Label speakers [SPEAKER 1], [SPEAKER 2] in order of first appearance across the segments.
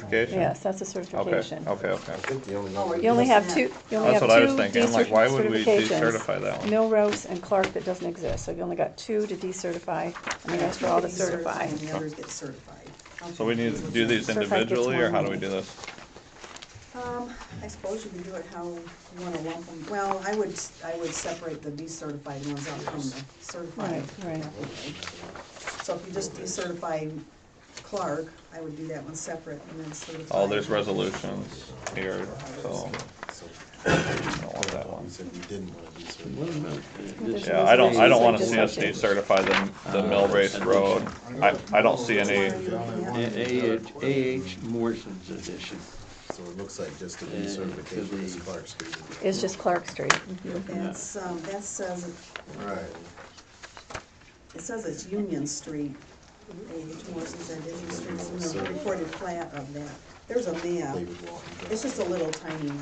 [SPEAKER 1] certification?
[SPEAKER 2] Yes, that's a
[SPEAKER 1] Okay,
[SPEAKER 2] certification.
[SPEAKER 1] okay, okay.
[SPEAKER 3] I think the only one.
[SPEAKER 2] You only have two, you only
[SPEAKER 1] That's
[SPEAKER 2] have two
[SPEAKER 1] what I was thinking, I'm
[SPEAKER 2] decert-
[SPEAKER 1] like, why would we
[SPEAKER 2] certifications.
[SPEAKER 1] decertify that one?
[SPEAKER 2] Milrose and Clark that doesn't exist, so you only got two to decertify, and the rest are all to certify.
[SPEAKER 4] And the others get certified.
[SPEAKER 1] So we need to do these
[SPEAKER 2] Certified gets
[SPEAKER 1] individually, or
[SPEAKER 2] one.
[SPEAKER 1] how do we do this?
[SPEAKER 4] Um, I suppose you can do it how you wanna lump them. Well, I would, I would separate the decertified ones out from the certified.
[SPEAKER 2] Right, right.
[SPEAKER 4] So if you just decertify Clark, I would do that one separate and then certify.
[SPEAKER 1] Oh, there's resolutions here, so I don't want that one.
[SPEAKER 3] We said we didn't want to do
[SPEAKER 5] Wait a
[SPEAKER 3] certain.
[SPEAKER 5] minute.
[SPEAKER 2] There's
[SPEAKER 1] Yeah, I don't, I don't
[SPEAKER 2] resolutions,
[SPEAKER 1] wanna
[SPEAKER 2] they
[SPEAKER 1] see us
[SPEAKER 2] just have to-
[SPEAKER 1] decertify the, the mill race road. I, I don't see any,
[SPEAKER 5] A- AH A.H. Morrison's edition.
[SPEAKER 3] So it looks like just a
[SPEAKER 5] Yeah, it could
[SPEAKER 3] decertification is
[SPEAKER 5] be.
[SPEAKER 3] Clark Street.
[SPEAKER 2] It's just Clark Street.
[SPEAKER 6] Mm-hmm.
[SPEAKER 4] That's, um, that says, it-
[SPEAKER 3] Right.
[SPEAKER 4] it says it's Union Street. H. Morrison's and Union Street, and there's a recorded plat of that. There's a map.
[SPEAKER 3] David Walton.
[SPEAKER 4] It's just a little tiny,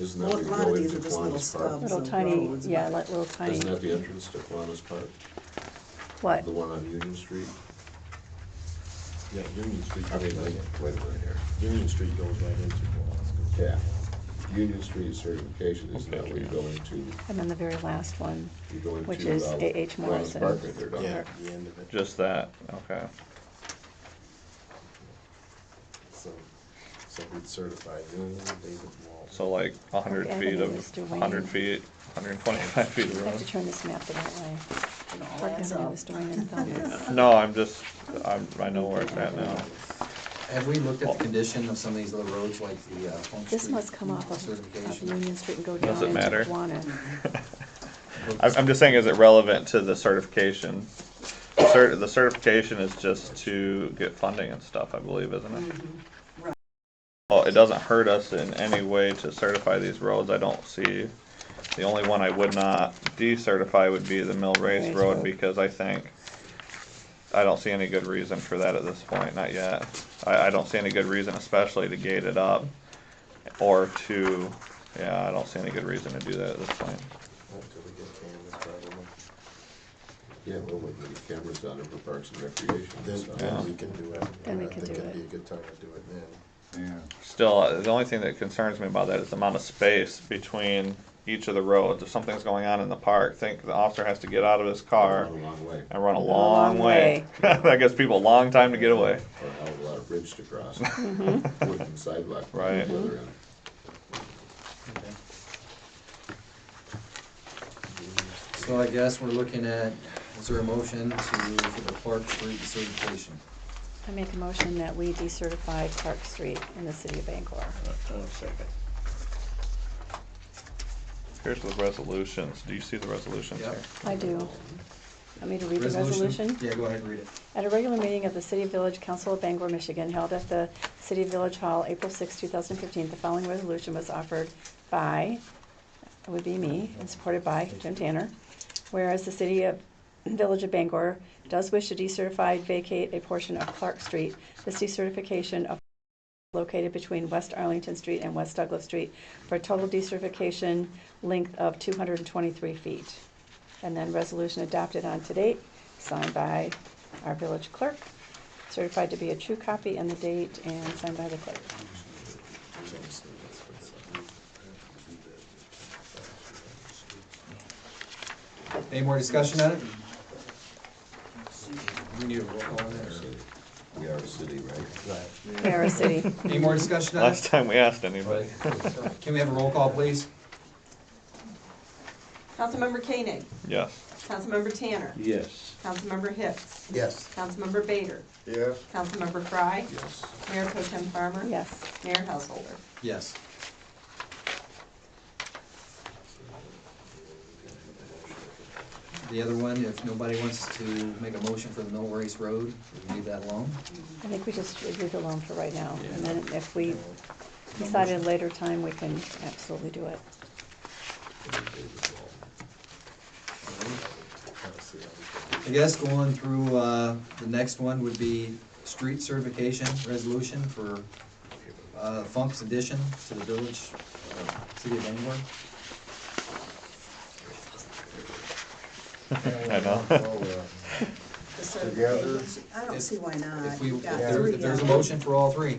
[SPEAKER 6] Isn't
[SPEAKER 4] a
[SPEAKER 6] that where you
[SPEAKER 4] lot
[SPEAKER 6] go
[SPEAKER 4] of these
[SPEAKER 6] into
[SPEAKER 4] are just
[SPEAKER 6] Kiwanis
[SPEAKER 4] little
[SPEAKER 6] Park?
[SPEAKER 4] stubs
[SPEAKER 2] Little
[SPEAKER 4] of
[SPEAKER 2] tiny,
[SPEAKER 4] roads.
[SPEAKER 2] yeah, like little tiny,
[SPEAKER 6] Isn't that the entrance to Kiwanis Park?
[SPEAKER 2] what?
[SPEAKER 6] The one on Union Street?
[SPEAKER 3] Yeah, Union Street.
[SPEAKER 6] I mean, like, wait a minute here.
[SPEAKER 3] Union Street goes right into Pulaski.
[SPEAKER 6] Yeah. Union Street certification, isn't that where you go into,
[SPEAKER 2] And then the very last one,
[SPEAKER 6] you go into.
[SPEAKER 2] Which is
[SPEAKER 6] uh,
[SPEAKER 2] A.H.
[SPEAKER 6] Kiwanis
[SPEAKER 2] Morrison.
[SPEAKER 6] Park right there, don't you?
[SPEAKER 3] Yeah, the end of it.
[SPEAKER 1] just that, okay.
[SPEAKER 3] So, so we'd certify Union, David Walton.
[SPEAKER 1] So like a hundred
[SPEAKER 2] Okay, I
[SPEAKER 1] feet
[SPEAKER 2] think it
[SPEAKER 1] of,
[SPEAKER 2] was Duane.
[SPEAKER 1] hundred feet, hundred and twenty-five feet
[SPEAKER 2] I
[SPEAKER 1] of
[SPEAKER 2] have to
[SPEAKER 1] road.
[SPEAKER 2] turn this map the right way.
[SPEAKER 4] and all
[SPEAKER 2] Clark
[SPEAKER 4] Oh, that's
[SPEAKER 2] Avenue
[SPEAKER 4] up.
[SPEAKER 2] is Duane and Phillips.
[SPEAKER 1] No, I'm just, I'm, I know where it's at now.
[SPEAKER 7] Have we looked at the condition of some of these little roads like the uh, Plum Street?
[SPEAKER 2] This must come off of- of
[SPEAKER 7] Certification.
[SPEAKER 2] Union Street and go down
[SPEAKER 1] Does it
[SPEAKER 2] into
[SPEAKER 1] matter?
[SPEAKER 2] Kiwanis.
[SPEAKER 1] I'm, I'm just saying, is it relevant to the certification? Cert, the certification is just to get funding and stuff, I believe, isn't it? Mm-hmm.
[SPEAKER 4] Right.
[SPEAKER 1] Well, it doesn't hurt us in any way to certify these roads, I don't see. The only one I would not decertify would be the Mill Race
[SPEAKER 2] Race
[SPEAKER 1] Road,
[SPEAKER 2] Road.
[SPEAKER 1] because I think, I don't see any good reason for that at this point, not yet. I, I don't see any good reason especially to gate it up, or to, yeah, I don't see any good reason to do that at this point.
[SPEAKER 3] Until we get cameras, probably.
[SPEAKER 6] Yeah, well, we can get cameras on it for Parks and Recreation.
[SPEAKER 3] Then,
[SPEAKER 6] so-
[SPEAKER 3] then we can do it.
[SPEAKER 2] Then we
[SPEAKER 3] I
[SPEAKER 2] can
[SPEAKER 3] think
[SPEAKER 2] do
[SPEAKER 3] It'd
[SPEAKER 2] it.
[SPEAKER 3] be a good time to do it then.
[SPEAKER 1] Still, uh, the only thing that concerns me about that is the amount of space between each of the roads. If something's going on in the park, think the officer has to get out of his car
[SPEAKER 6] A long way,
[SPEAKER 1] and run a long
[SPEAKER 2] long
[SPEAKER 1] way. That gives people a long time to get away.
[SPEAKER 6] or a hell of a lot of bridge to cross.
[SPEAKER 4] Mm-hmm.
[SPEAKER 6] Wooden sidewalk. on
[SPEAKER 1] Right.
[SPEAKER 6] the other end.
[SPEAKER 7] So I guess we're looking at, is there a motion to, for the Clark Street certification?
[SPEAKER 2] I make a motion that we decertify Clark Street in the city of Bangor.
[SPEAKER 5] I'll Oh, second.
[SPEAKER 1] Here's the resolutions. Do you see the resolutions
[SPEAKER 7] Yep.
[SPEAKER 1] here?
[SPEAKER 2] I do. Want me to read the resolution?
[SPEAKER 7] Yeah, go ahead and read it.
[SPEAKER 2] At a regular meeting of the City Village Council of Bangor, Michigan, held at the City Village Hall, April 6, 2015, the following resolution was offered by, it would be me, and supported by Jim Tanner. Whereas the City of Village of Bangor does wish to decertify, vacate a portion of Clark Street. This decertification of located between West Arlington Street and West Douglas Street for a total decertification length of 223 feet. And then resolution adopted on to date, signed by our village clerk, certified to be a true copy and the date, and signed by the clerk.
[SPEAKER 7] Any more discussion on it? We need a roll call on that, or-
[SPEAKER 6] We are a city, right?
[SPEAKER 2] Mara City.
[SPEAKER 7] Any more discussion on
[SPEAKER 1] Last
[SPEAKER 7] it?
[SPEAKER 1] time we asked anybody.
[SPEAKER 7] Can we have a roll call, please?
[SPEAKER 8] Councilmember Koenig,
[SPEAKER 1] Yes.
[SPEAKER 8] Councilmember Tanner,
[SPEAKER 5] Yes.
[SPEAKER 8] Councilmember Hicks,
[SPEAKER 3] Yes.
[SPEAKER 8] Councilmember Bader,
[SPEAKER 3] Yeah.
[SPEAKER 8] Councilmember Frye,
[SPEAKER 6] Yes.
[SPEAKER 8] Mayor Pro Tem Farmer.
[SPEAKER 2] Yes.
[SPEAKER 8] Mayor Householder.
[SPEAKER 7] Yes. The other one, if nobody wants to make a motion for the Mill Race Road, we can leave that alone.
[SPEAKER 2] I think we just should leave it alone for right now, and then if we decide at a later time, we can absolutely do it.
[SPEAKER 7] I guess going through, uh, the next one would be street certification resolution for, uh, Funk's addition to the village, uh, city of Bangor.
[SPEAKER 1] I know.
[SPEAKER 4] The
[SPEAKER 3] Together.
[SPEAKER 4] certification. I don't see why not.
[SPEAKER 7] If we,
[SPEAKER 4] You've
[SPEAKER 7] if
[SPEAKER 4] got
[SPEAKER 7] there-
[SPEAKER 4] three
[SPEAKER 7] if there's a
[SPEAKER 4] of them.
[SPEAKER 7] motion for all three,